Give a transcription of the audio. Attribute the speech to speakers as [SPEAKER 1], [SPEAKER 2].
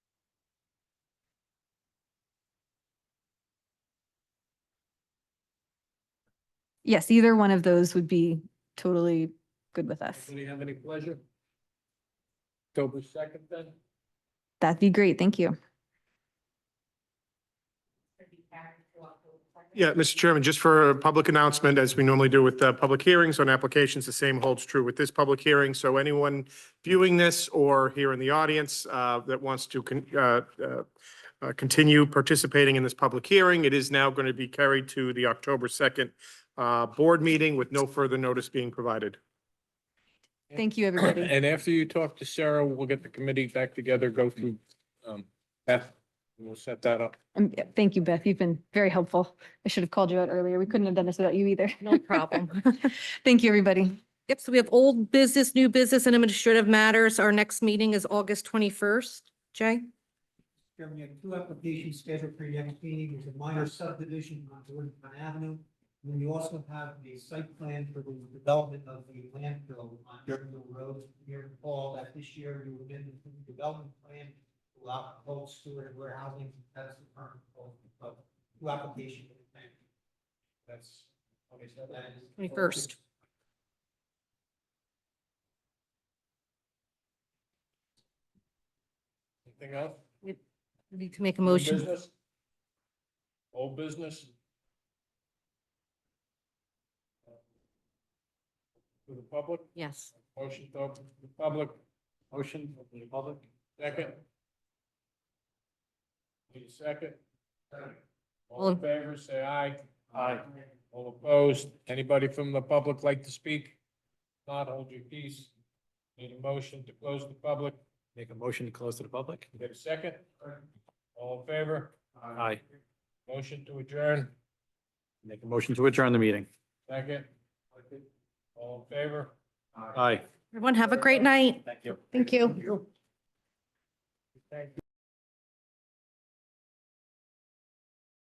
[SPEAKER 1] yes, either one of those would be totally good with us.
[SPEAKER 2] Anybody have any pleasure? October second then?
[SPEAKER 1] That'd be great. Thank you.
[SPEAKER 3] Yeah, Mr. Chairman, just for a public announcement, as we normally do with uh, public hearings on applications, the same holds true with this public hearing. So anyone viewing this or here in the audience uh, that wants to con- uh, uh, uh, continue participating in this public hearing, it is now going to be carried to the October 2nd uh, board meeting with no further notice being provided.
[SPEAKER 1] Thank you, everybody.
[SPEAKER 2] And after you talk to Sarah, we'll get the committee back together, go through, um, Beth, and we'll set that up.
[SPEAKER 1] Um, yeah, Thank you, Beth. You've been very helpful. I should have called you out earlier. We couldn't have done this without you either.
[SPEAKER 4] No problem.
[SPEAKER 1] Thank you, everybody.
[SPEAKER 4] Yep, so we have old business, new business and administrative matters. Our next meeting is August twenty-first. Jay?
[SPEAKER 5] Chairman, you have two applications scheduled for your next meeting, there's a minor subdivision on Woodmont Avenue. And then you also have the site plan for the development of the landfill on Durbanville Road here in Paul, that this year you amended the development plan to allow cold storage and warehousing, that's the current goal of two applications. That's, okay, so that is.
[SPEAKER 4] 21st.
[SPEAKER 2] Anything else?
[SPEAKER 4] We Need to make a
[SPEAKER 2] New
[SPEAKER 4] motion.
[SPEAKER 2] business? Old business? To the public,
[SPEAKER 4] Yes.
[SPEAKER 2] motion to open to the public, motion to the public, second. Need a second? All in favor, say aye. Aye. All opposed, anybody from the public like to speak? Not hold your peace. Need a motion to close the public,
[SPEAKER 6] Make a motion to close to the public?
[SPEAKER 2] get a second? All in favor?
[SPEAKER 6] Aye.
[SPEAKER 2] Motion to adjourn,
[SPEAKER 6] Make a motion to adjourn the meeting.
[SPEAKER 2] second. All in favor?
[SPEAKER 6] Aye.
[SPEAKER 4] Everyone have a great night.
[SPEAKER 2] Thank you.
[SPEAKER 4] Thank you.
[SPEAKER 2] Thank you.